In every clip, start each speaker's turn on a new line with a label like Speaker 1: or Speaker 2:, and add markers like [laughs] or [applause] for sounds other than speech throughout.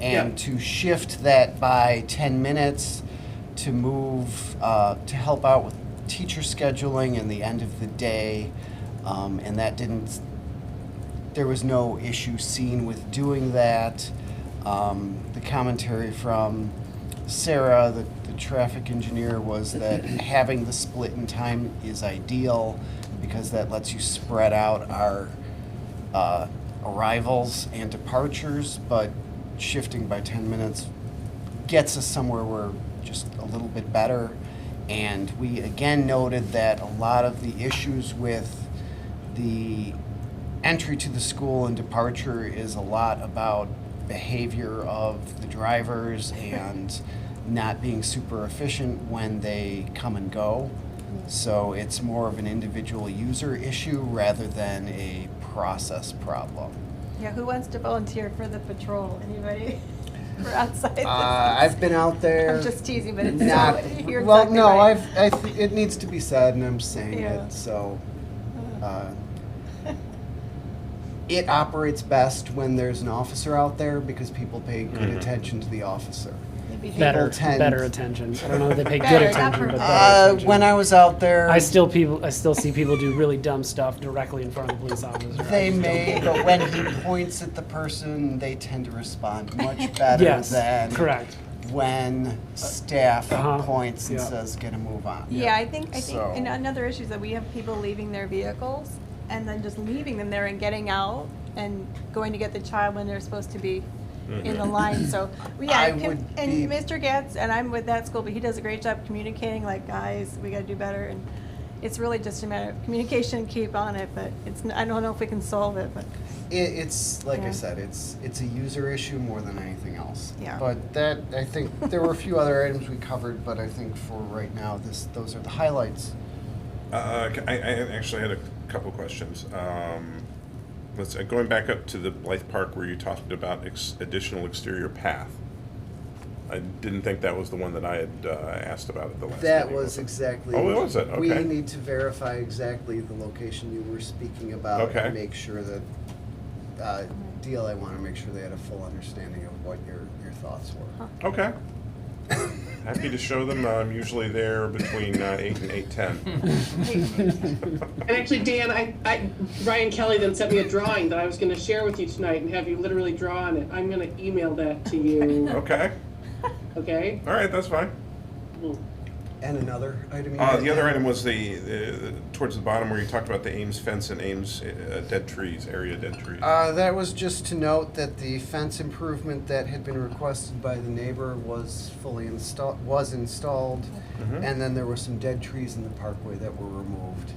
Speaker 1: And to shift that by 10 minutes to move, uh, to help out with teacher scheduling and the end of the day. Um, and that didn't, there was no issue seen with doing that. Um, the commentary from Sarah, the, the traffic engineer, was that having the split in time is ideal because that lets you spread out our uh, arrivals and departures, but shifting by 10 minutes gets us somewhere we're just a little bit better. And we again noted that a lot of the issues with the entry to the school and departure is a lot about behavior of the [laughs] drivers and not being super efficient when they come and go. So it's more of an individual user issue rather than a process problem.
Speaker 2: Yeah, who wants to volunteer for the patrol? Anybody? [laughs] We're outside. this-
Speaker 1: Uh, I've been out there.
Speaker 2: I'm just teasing, but it's
Speaker 1: Not,
Speaker 2: you're
Speaker 1: well,
Speaker 2: exactly
Speaker 1: no,
Speaker 2: right.
Speaker 1: I've, I th- it needs to be said, and I'm saying
Speaker 2: Yeah.
Speaker 1: it, so. uh, It operates best when there's an officer out there because people pay good
Speaker 3: Mm-hmm.
Speaker 1: attention to the officer.
Speaker 2: [laughs] Maybe they-
Speaker 3: better,
Speaker 1: tend-
Speaker 3: better attention. I don't know if they pay good
Speaker 2: Better, not
Speaker 3: attention, but
Speaker 2: perfect.
Speaker 3: better
Speaker 1: Uh,
Speaker 3: attention.
Speaker 1: when I was out there,
Speaker 3: I still people, I still see people do really dumb stuff directly in front of the police officer. I
Speaker 1: they
Speaker 3: just don't- [laughs]
Speaker 1: may, but when he points at the person, they tend to respond much
Speaker 3: [laughs]
Speaker 1: better
Speaker 3: Yes,
Speaker 1: than
Speaker 3: correct.
Speaker 1: when staff
Speaker 3: Uh-huh,
Speaker 1: points and
Speaker 3: yeah.
Speaker 1: says, "Get a move on."
Speaker 2: Yeah, I think, I think,
Speaker 1: So-
Speaker 2: and another issue is that we have people leaving their vehicles and then just leaving them there and getting out and going to get the child when they're supposed to be in the
Speaker 1: [coughs]
Speaker 2: line, so, yeah.
Speaker 1: Mm-hmm. I
Speaker 2: Kim-
Speaker 1: would be-
Speaker 2: And Mr. Gatz, and I'm with that school, but he does a great job communicating, like, guys, we gotta do better, and it's really just a matter of communication, keep on it, but it's, n- I don't know if we can solve it, but,
Speaker 1: It, it's like
Speaker 2: Yeah.
Speaker 1: I said, it's it's a user issue more than anything else.
Speaker 2: Yeah.
Speaker 1: But that I think there were a few other items we covered, but I think for right now, this those are the highlights.
Speaker 4: Uh, I, I actually had a couple questions. Um, let's, uh, going back up to the Blythe Park where you talked about ex- additional exterior path. I didn't think that was the one that I had, uh, asked about at the last
Speaker 1: That
Speaker 4: meeting,
Speaker 1: was
Speaker 4: it?
Speaker 1: exactly.
Speaker 4: Oh, was it?
Speaker 1: We
Speaker 4: Okay.
Speaker 1: need to verify exactly the location you were speaking about
Speaker 4: Okay.
Speaker 1: and make sure that uh, DLA want to make sure they had a full understanding of what your your thoughts were.
Speaker 4: Okay. Happy to show them. I'm usually there between, uh, eight and eight-ten.
Speaker 5: And actually, Dan, I, I, Ryan Kelly then sent me a drawing that I was going to share with you tonight and have you literally draw on it. I'm going to email that
Speaker 4: [laughs]
Speaker 5: to you,
Speaker 4: Okay,
Speaker 5: okay?
Speaker 4: all right, that's fine.
Speaker 1: And another item. you
Speaker 4: Uh,
Speaker 1: had
Speaker 4: the other
Speaker 1: there?
Speaker 4: item was the, the, towards the bottom where you talked about the Ames fence and Ames, uh, dead trees, area dead trees.
Speaker 1: Uh, that was just to note that the fence improvement that had been requested by the neighbor was fully installed, was installed.
Speaker 4: Mhm.
Speaker 1: And then there were some dead trees in the parkway that were removed.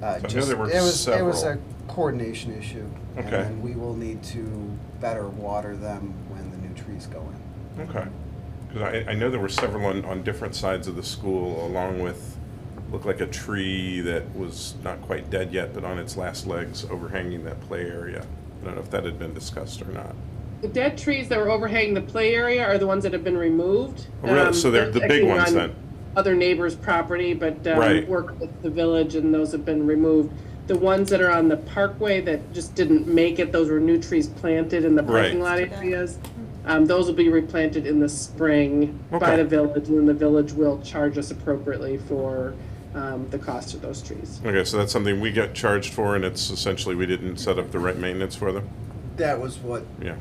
Speaker 1: Uh,
Speaker 4: I know
Speaker 1: just-
Speaker 4: there were
Speaker 1: it was- It was a
Speaker 4: several.
Speaker 1: coordination issue. And
Speaker 4: Okay.
Speaker 1: then we will need to better water them when the new trees go in.
Speaker 4: Okay. Because I, I know there were several on, on different sides of the school, along with, looked like a tree that was not quite dead yet, but on its last legs overhanging that play area. I don't know if that had been discussed or not.
Speaker 5: The dead trees that were overhanging the play area are the ones that have been removed. um,
Speaker 4: Oh, really? So they're the
Speaker 5: that's
Speaker 4: big
Speaker 5: actually
Speaker 4: ones
Speaker 5: on
Speaker 4: then?
Speaker 5: Other neighbors' property, but um,
Speaker 4: Right.
Speaker 5: work with the village and those have been removed. The ones that are on the parkway that just didn't make it, those were new trees planted in the parking lot
Speaker 4: Right.
Speaker 5: areas. Um, those will be replanted in the spring
Speaker 4: Okay.
Speaker 5: by the village, and the village will charge us appropriately for um, the cost of those trees.
Speaker 4: Okay, so that's something we get charged for, and it's essentially we didn't set up the right maintenance for them?
Speaker 1: That was what,
Speaker 4: Yeah.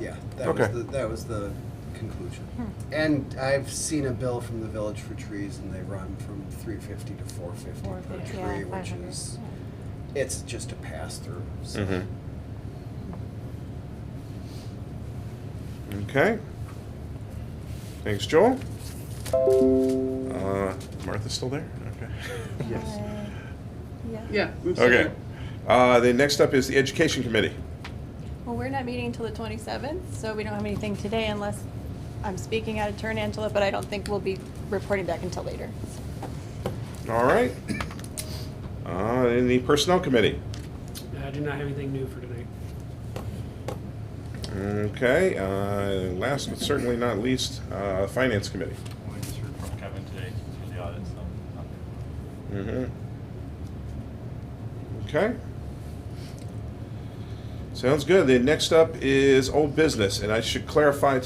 Speaker 1: yeah, that was
Speaker 4: Okay.
Speaker 1: the, that was the conclusion. And I've seen a bill from the village for trees and they run from three fifty to four fifty per
Speaker 2: 450, yeah,
Speaker 1: tree, which
Speaker 2: 500,
Speaker 1: is, it's just a pass through, so.
Speaker 4: Mm-hmm. Okay. Thanks, Joel. Uh, Martha's still there? Okay.
Speaker 1: Yes.
Speaker 2: Uh, yeah.
Speaker 5: Yeah. I'm sorry.
Speaker 4: Okay. Uh, the next up is the Education Committee.
Speaker 2: Well, we're not meeting until the 27th, so we don't have anything today unless I'm speaking out of turn, Angela, but I don't think we'll be reporting back until later.
Speaker 4: All right. Uh, and the Personnel Committee.
Speaker 3: I do not have anything new for tonight.
Speaker 4: Okay. Uh, last but certainly not least, uh, Finance Committee.
Speaker 6: We just heard from Kevin today for the audit, so um, nothing.
Speaker 4: Mm-hmm. Okay. Sounds good. The next up is old business, and I should clarify